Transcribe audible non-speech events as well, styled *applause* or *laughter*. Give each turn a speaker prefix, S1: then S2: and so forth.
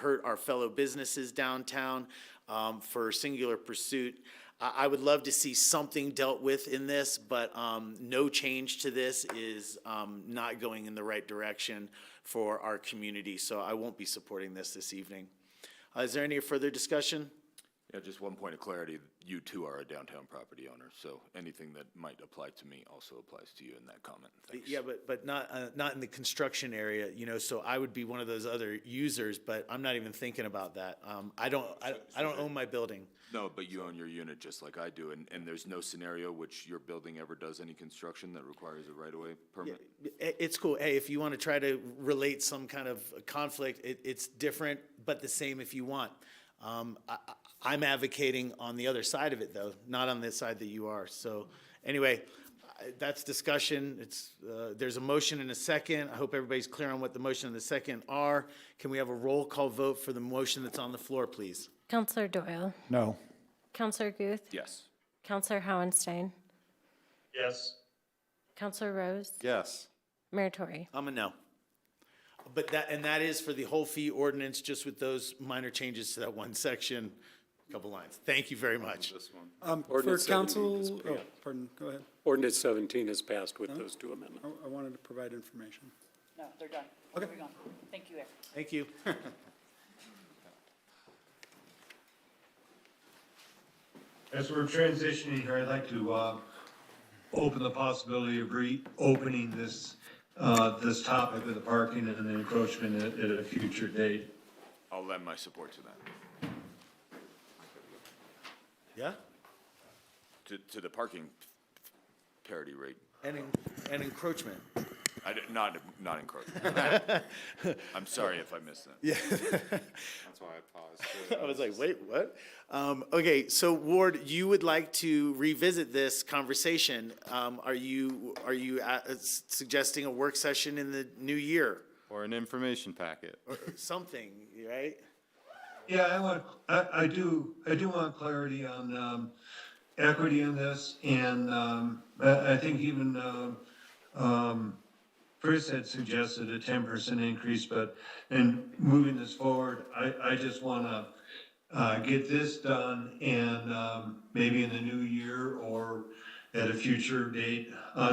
S1: hurt our fellow businesses downtown um, for Singular Pursuit. I, I would love to see something dealt with in this, but um, no change to this is um, not going in the right direction for our community, so I won't be supporting this this evening. Uh, Is there any further discussion?
S2: Yeah, just one point of clarity, you too are a downtown property owner, so anything that might apply to me also applies to you in that comment. Thanks.
S1: Yeah, but, but not, uh, not in the construction area, you know, so I would be one of those other users, but I'm not even thinking about that. Um, I don't, I, I don't own my building.
S2: No, but you own your unit just like I do, and, and there's no scenario which your building ever does any construction that requires a right-of-way permit?
S1: I- it's cool. Hey, if you want to try to relate some kind of conflict, it, it's different, but the same if you want. Um, I, I- I'm advocating on the other side of it though, not on the side that you are. So anyway, I- that's discussion. It's, uh, there's a motion and a second. I hope everybody's clear on what the motion and the second are. Can we have a roll call vote for the motion that's on the floor, please?
S3: Counselor Doyle.
S4: No.
S3: Counselor Guth.
S2: Yes.
S3: Counselor Howenstein.
S5: yes,
S3: Counselor Rose.
S6: yes,
S3: Mayor Tory.
S1: I'm a no. But that, and that is for the whole fee ordinance, just with those minor changes to that one section, couple lines. Thank you very much.
S7: Um, For
S8: Ordinance 17 is
S7: council, oh, pardon, go ahead.
S8: Ordinance 17 is passed with those two amendments.
S7: I I wanted to provide information.
S9: No, they're done. Okay. Moving on. Thank you, Eric.
S1: Thank you. *laughs*
S5: as we're transitioning here, I'd like to, uh, open the possibility of reopening this, uh, this topic of the parking and the encroachment at, at a future date.
S2: I'll lend my support to that,
S1: Yeah?
S2: to, to the parking parity rate,
S1: And, en- and encroachment.
S2: I, did- not, not encroaching. I'm sorry if I missed that.
S6: that's why I paused. *laughs*
S1: I was like, wait, what? Um, okay, so Ward, you would like to revisit this conversation. Um, are you, are you uh, s- suggesting a work session in the new year?
S6: Or an information packet.
S1: Something, right?
S5: Yeah, I want, I, I do, I do want clarity on, um, equity in this and, um, I, I think even, um, um, Chris had suggested a ten percent increase, but in moving this forward, I, I just wanna, uh, get this done and, um, maybe in the new year or at a future date, uh,